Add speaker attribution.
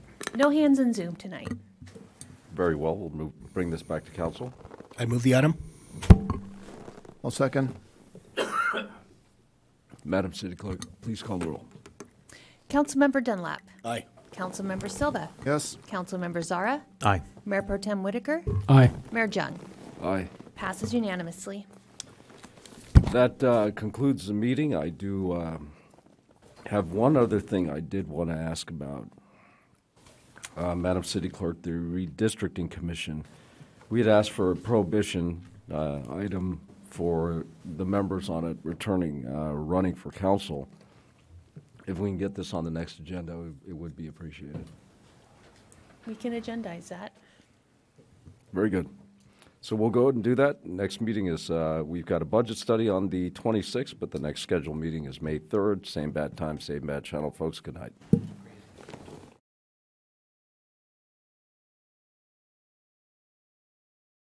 Speaker 1: No hands in Zoom tonight.
Speaker 2: Very well, we'll move, bring this back to council.
Speaker 3: I move the item.
Speaker 4: I'll second.
Speaker 2: Madam City Clerk, please call the roll.
Speaker 1: Councilmember Dunlap.
Speaker 3: Aye.
Speaker 1: Councilmember Silva.
Speaker 4: Yes,
Speaker 1: Councilmember Zara.
Speaker 3: Aye.
Speaker 1: Mayor Pro Tem Whitaker.
Speaker 5: Aye.
Speaker 1: Mayor Jung.
Speaker 2: Aye.
Speaker 1: Passes unanimously.
Speaker 2: That uh, concludes the meeting. I do um, have one other thing I did want to ask about. Uh, Madam City Clerk, the redistricting commission. We had asked for a prohibition uh, item for the members on it returning, uh, running for council. If we can get this on the next agenda, it would be appreciated.
Speaker 1: We can agendize that.
Speaker 2: Very good. So we'll go ahead and do that. Next meeting is, uh, we've got a budget study on the 26th, but the next scheduled meeting is May 3rd, same bad time, same bad channel. Folks, good night.